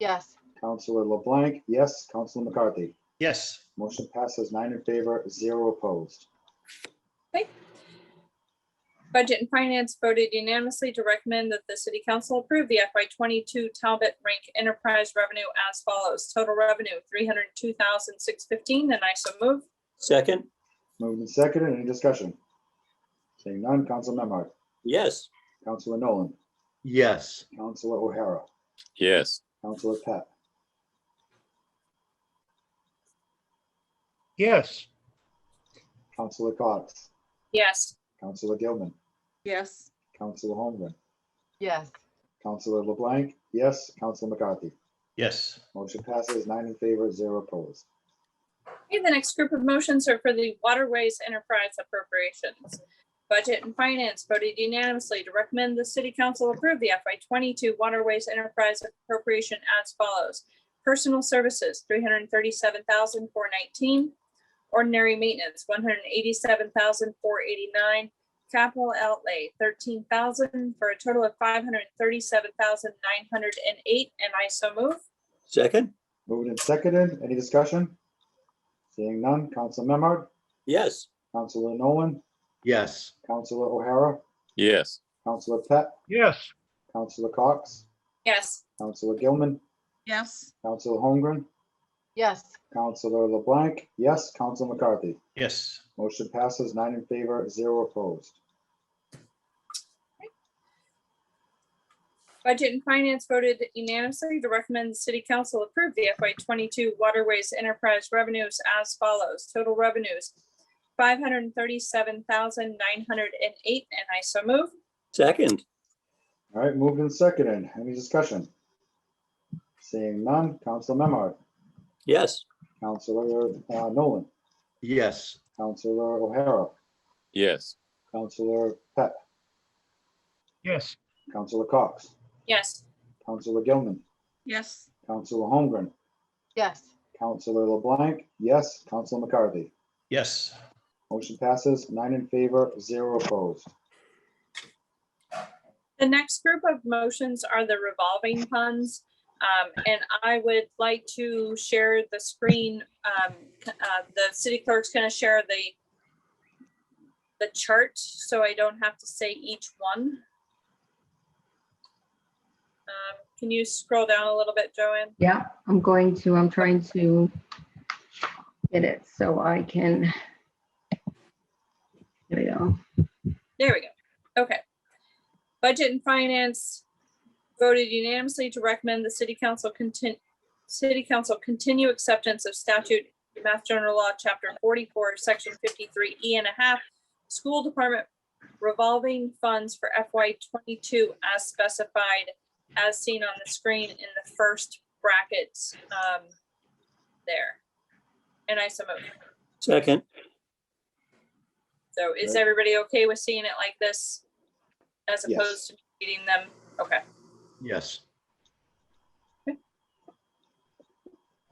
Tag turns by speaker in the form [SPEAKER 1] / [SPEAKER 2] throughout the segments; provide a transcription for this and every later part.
[SPEAKER 1] Yes.
[SPEAKER 2] Counselor LeBlanc, yes. Counselor McCarthy.
[SPEAKER 3] Yes.
[SPEAKER 2] Motion passes nine in favor, zero opposed.
[SPEAKER 4] Budget and Finance voted unanimously to recommend that the City Council approve the FY twenty-two Talbot Rank Enterprise revenue as follows. Total revenue, three hundred two thousand six fifteen, and I so move.
[SPEAKER 5] Second,
[SPEAKER 2] Moved and seconded. Any discussion? Seeing none. Counselor Memard.
[SPEAKER 5] yes.
[SPEAKER 2] Counselor Nolan.
[SPEAKER 3] Yes.
[SPEAKER 2] Counselor O'Hara.
[SPEAKER 6] yes,
[SPEAKER 2] Counselor Pat.
[SPEAKER 3] Yes.
[SPEAKER 2] Counselor Cox.
[SPEAKER 4] Yes.
[SPEAKER 2] Counselor Gilman.
[SPEAKER 1] Yes.
[SPEAKER 2] Counselor Holmgren.
[SPEAKER 1] Yes.
[SPEAKER 2] Counselor LeBlanc, yes. Counselor McCarthy.
[SPEAKER 3] Yes.
[SPEAKER 2] Motion passes nine in favor, zero opposed.
[SPEAKER 4] Okay, the next group of motions are for the Waterways Enterprise Appropriations. Budget and Finance voted unanimously to recommend the City Council approve the FY twenty-two Waterways Enterprise Appropriation as follows. Personal Services, three hundred thirty-seven thousand four nineteen. Ordinary Maintenance, one hundred eighty-seven thousand four eighty-nine. Capital Outlay, thirteen thousand, for a total of five hundred thirty-seven thousand nine hundred and eight, and I so move.
[SPEAKER 5] Second,
[SPEAKER 2] Moved and seconded. Any discussion? Seeing none. Counselor Memard,
[SPEAKER 5] yes.
[SPEAKER 2] Counselor Nolan,
[SPEAKER 3] Yes.
[SPEAKER 2] Counselor O'Hara,
[SPEAKER 6] yes,
[SPEAKER 2] Counselor Pat,
[SPEAKER 3] Yes.
[SPEAKER 2] Counselor Cox,
[SPEAKER 4] Yes.
[SPEAKER 2] Counselor Gilman,
[SPEAKER 1] Yes.
[SPEAKER 2] Counselor Holmgren,
[SPEAKER 1] Yes.
[SPEAKER 2] Counselor LeBlanc, yes. Counselor McCarthy.
[SPEAKER 3] Yes.
[SPEAKER 2] Motion passes nine in favor, zero opposed.
[SPEAKER 4] Budget and Finance voted unanimously to recommend the City Council approve the FY twenty-two Waterways Enterprise revenues as follows. Total revenues, five hundred and thirty-seven thousand nine hundred and eight, and I so move.
[SPEAKER 5] Second,
[SPEAKER 2] All right, moved and seconded. Any discussion? Seeing none. Counselor Memard,
[SPEAKER 5] yes.
[SPEAKER 2] Counselor uh, Nolan,
[SPEAKER 3] Yes.
[SPEAKER 2] Counselor O'Hara,
[SPEAKER 6] yes,
[SPEAKER 2] Counselor Pat,
[SPEAKER 3] Yes.
[SPEAKER 2] Counselor Cox,
[SPEAKER 4] Yes.
[SPEAKER 2] Counselor Gilman,
[SPEAKER 1] Yes.
[SPEAKER 2] Counselor Holmgren,
[SPEAKER 1] Yes.
[SPEAKER 2] Counselor LeBlanc, yes, Counselor McCarthy.
[SPEAKER 3] Yes.
[SPEAKER 2] Motion passes nine in favor, zero opposed.
[SPEAKER 4] The next group of motions are the revolving funds. Um, and I would like to share the screen. Um, uh, the city clerk's gonna share the the chart, so I don't have to say each one. Um, can you scroll down a little bit, Joanne?
[SPEAKER 7] Yeah, I'm going to, I'm trying to get it so I can. There we go.
[SPEAKER 4] There we go. Okay. Budget and Finance voted unanimously to recommend the city council contin- city council continue acceptance of statute Mass General Law, Chapter forty-four, Section fifty-three E and a half, school department revolving funds for FY twenty-two as specified, as seen on the screen in the first brackets, um, there. And I so move.
[SPEAKER 5] Second,
[SPEAKER 4] So is
[SPEAKER 2] Right.
[SPEAKER 4] everybody okay with seeing it like this? As
[SPEAKER 2] Yes.
[SPEAKER 4] opposed to reading them? Okay,
[SPEAKER 3] Yes.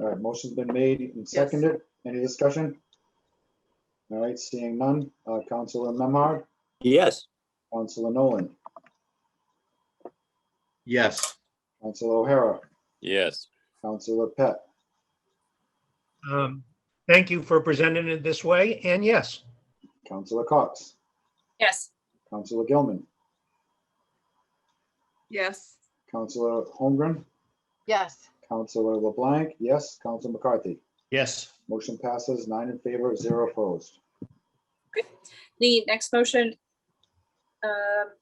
[SPEAKER 2] All right, motion's been made and seconded. Any discussion? All right, seeing none. Uh, Counselor Memard,
[SPEAKER 5] yes.
[SPEAKER 2] Counselor Nolan,
[SPEAKER 3] Yes.
[SPEAKER 2] Counselor O'Hara,
[SPEAKER 6] yes,
[SPEAKER 2] Counselor Pat,
[SPEAKER 8] Um, Thank you for presenting it this way, and yes,
[SPEAKER 2] Counselor Cox,
[SPEAKER 4] yes,
[SPEAKER 2] Counselor Gilman,
[SPEAKER 1] Yes.
[SPEAKER 2] Counselor Holmgren,
[SPEAKER 1] Yes.
[SPEAKER 2] Counselor LeBlanc, yes. Counselor McCarthy.
[SPEAKER 3] Yes.
[SPEAKER 2] Motion passes nine in favor, zero opposed.
[SPEAKER 4] the next motion. um,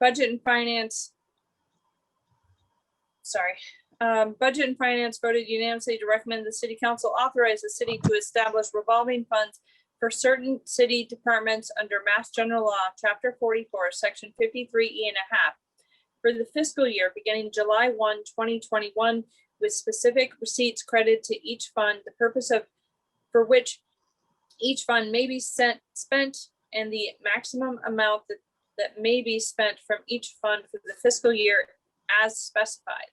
[SPEAKER 4] Budget and Finance. Sorry, um, Budget and Finance voted unanimously to recommend the city council authorize the city to establish revolving funds for certain city departments under Mass General Law, Chapter forty-four, Section fifty-three E and a half for the fiscal year beginning July 1, 2021, with specific receipts credit to each fund, the purpose of for which each fund may be sent, spent, and the maximum amount that, that may be spent from each fund for the fiscal year as specified.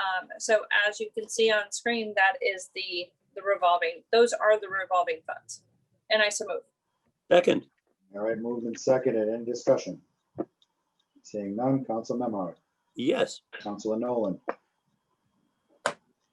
[SPEAKER 4] Um, so as you can see on screen, that is the, the revolving, those are the revolving funds. And I so move.
[SPEAKER 5] Second,
[SPEAKER 2] All right, moved and seconded. Any discussion? Seeing none, Council Memard,
[SPEAKER 5] yes.
[SPEAKER 2] Councilor Nolan,